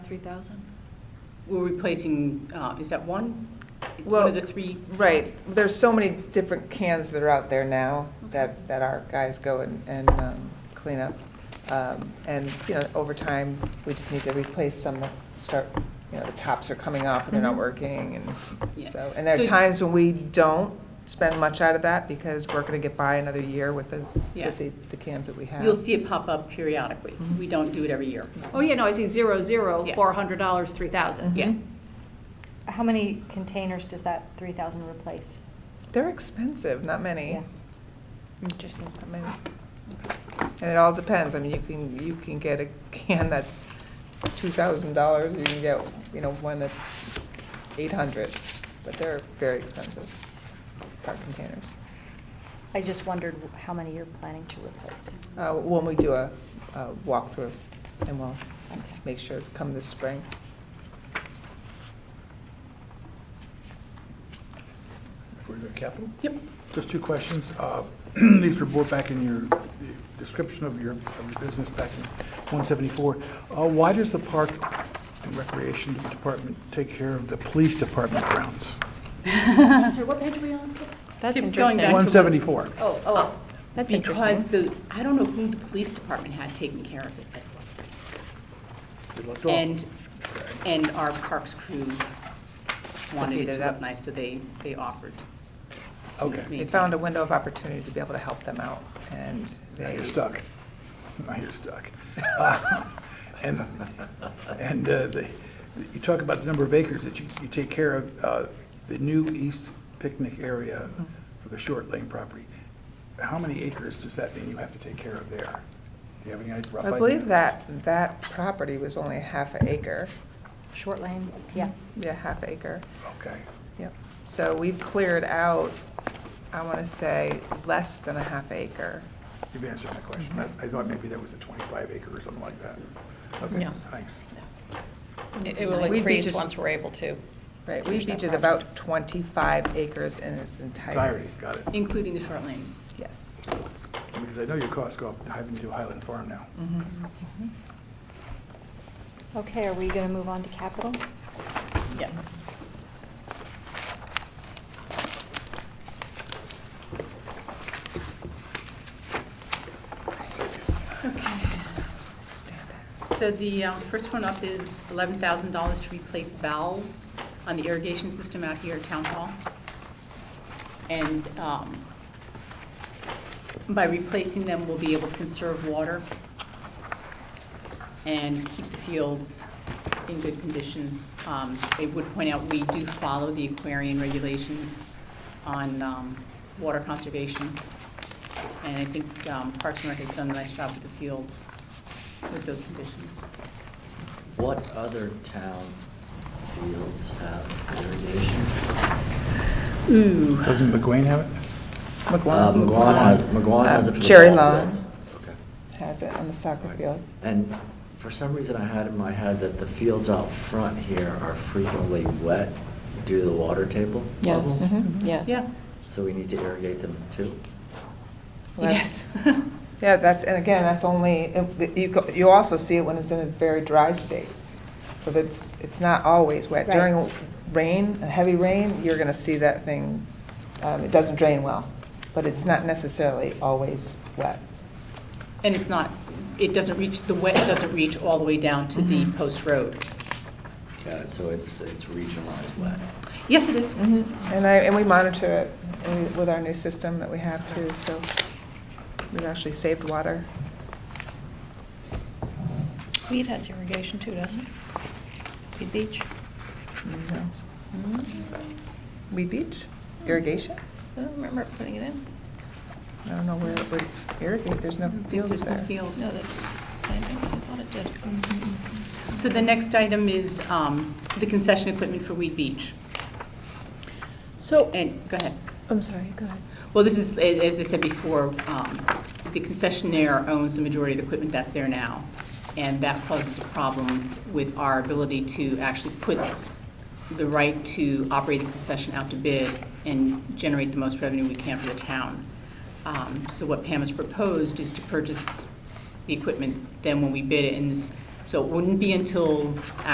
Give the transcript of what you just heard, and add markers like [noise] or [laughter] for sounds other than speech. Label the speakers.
Speaker 1: three thousand?
Speaker 2: We're replacing, uh, is that one? One
Speaker 3: Well-
Speaker 2: of the three,
Speaker 3: Right, there's so many different cans that are out there now that, that our guys go and, and um, clean up. Um, And, you know, over time, we just need to replace some that start, you know, the tops are coming off and they're not working and
Speaker 2: Mm-hmm. Yeah.
Speaker 3: so. And there are
Speaker 2: So-
Speaker 3: times when we don't spend much out of that because we're gonna get by another year with the,
Speaker 2: Yeah.
Speaker 3: with the, the cans that we have.
Speaker 2: you'll see it pop up periodically. We don't do it every year.
Speaker 1: Oh, yeah, no, I see zero, zero,
Speaker 2: Yeah.
Speaker 1: four hundred dollars, three thousand, yeah.
Speaker 3: Mhm.
Speaker 4: How many containers does that three thousand replace?
Speaker 3: They're expensive, not many.
Speaker 4: Yeah. Interesting.
Speaker 3: I mean, And it all depends, I mean, you can, you can get a can that's two thousand dollars, you can get, you know, one that's eight hundred, but they're very expensive, part containers.
Speaker 4: I just wondered how many you're planning to replace.
Speaker 3: Uh, when we do a, a walkthrough, and we'll
Speaker 4: Okay.
Speaker 3: make sure, come this spring.
Speaker 5: Before we go to capital?
Speaker 2: Yep.
Speaker 5: Just two questions. Uh, [clears throat] These were brought back in your the description of your of your business back in 174. Uh, Why does the Park and Recreation Department take care of the police department grounds?
Speaker 1: Sorry, what page are we on?
Speaker 4: That's
Speaker 2: Keeps going back to what's-
Speaker 5: 174.
Speaker 2: Oh, oh.
Speaker 4: That's
Speaker 2: Because the, I don't know who the police department had taken care of it.
Speaker 5: Good luck to all.
Speaker 2: And, and our parks crew wanted it
Speaker 3: Divvied it
Speaker 2: to look
Speaker 3: up.
Speaker 2: nice, so they, they offered. to
Speaker 5: Okay.
Speaker 3: They
Speaker 2: maintain
Speaker 3: found
Speaker 2: it.
Speaker 3: a window of opportunity to be able to help them out, and
Speaker 5: Now
Speaker 3: they.
Speaker 5: you're stuck. Now you're stuck. Uh, And, and uh, the- you talk about the number of acres that you, you take care of, uh, the new east picnic area for the short lane property. How many acres does that mean you have to take care of there? Do you have any rough idea?
Speaker 3: I believe that, that property was only a half an acre,
Speaker 4: Short lane, yeah.
Speaker 3: yeah, half acre.
Speaker 5: Okay.
Speaker 3: Yep, so we've cleared out, I want to say, less than a half acre.
Speaker 5: You've answered my question. I I thought maybe that was a 25 acre or something like that. Okay,
Speaker 6: No.
Speaker 5: thanks.
Speaker 6: It it will
Speaker 3: We'd be
Speaker 6: increase
Speaker 3: just-
Speaker 6: once we're able to.
Speaker 3: Right, Weed Beach is about 25 acres in its entirety.
Speaker 5: Entirety, got it.
Speaker 2: Including the short lane.
Speaker 3: Yes.
Speaker 5: Because I know your costs go up having to do Highland Farm now.
Speaker 4: Okay, are we gonna move on to capital?
Speaker 2: Yes. Okay. So the um, first one up is eleven thousand dollars to replace valves on the irrigation system out here at Town Hall. And um, by replacing them, we'll be able to conserve water and keep the fields in good condition. Um, I would point out, we do follow the Aquarian regulations on um, water conservation. And I think um, Parks and Rec has done a nice job with the fields with those conditions.
Speaker 7: What other town fields have irrigation?
Speaker 3: Mm-hmm.
Speaker 2: Ooh.
Speaker 5: Doesn't McGuane have it?
Speaker 7: Uh,
Speaker 3: McGuan
Speaker 7: McGuan has, McGuan has it
Speaker 3: Uh,
Speaker 7: for the
Speaker 3: Cherry
Speaker 7: ball
Speaker 3: Lawn.
Speaker 7: fields. Okay.
Speaker 3: has it on the soccer field.
Speaker 7: And for some reason, I had in my head that the fields out front here are frequently wet due to the water table levels.
Speaker 3: Mhm.
Speaker 6: yeah.
Speaker 2: Yeah.
Speaker 7: So we need to irrigate them too.
Speaker 3: That's-
Speaker 2: Yes.
Speaker 3: Yeah, that's, and again, that's only, you, go- you also see it when it's in a very dry state. So that's, it's not always wet.
Speaker 4: Right.
Speaker 3: During rain, heavy rain, you're going to see that thing, um, it doesn't drain well, but it's not necessarily always wet.
Speaker 2: [laughs] And it's not, it doesn't reach, the wet doesn't reach all the way down to the post road.
Speaker 7: Got it, so it's, it's regionalized wet.
Speaker 2: Yes, it is.
Speaker 3: And I, and we monitor it uh, with our new system that we have too, so we've actually saved water.
Speaker 6: Weed has irrigation too, doesn't it? Weed Beach?
Speaker 3: you know. Mm-hmm. Weed Beach irrigation?
Speaker 6: I don't remember putting it in.
Speaker 3: I don't know where it would irrigate, there's no fields
Speaker 2: There's no
Speaker 3: there.
Speaker 2: fields. Mm-hmm,
Speaker 6: No, that, I think so, I thought it did.
Speaker 2: So the next item is um, the concession equipment for Weed Beach.
Speaker 8: So,
Speaker 2: And, go ahead.
Speaker 8: I'm sorry, go ahead.
Speaker 2: Well, this is, a- as I said before, um, the concessionaire owns the majority of the equipment that's there now, and that causes a problem with our ability to actually put the right to operate the concession out to bid and generate the most revenue we can for the town. Um, So what Pam has proposed is to purchase the equipment then when we bid it, and this- so it wouldn't be until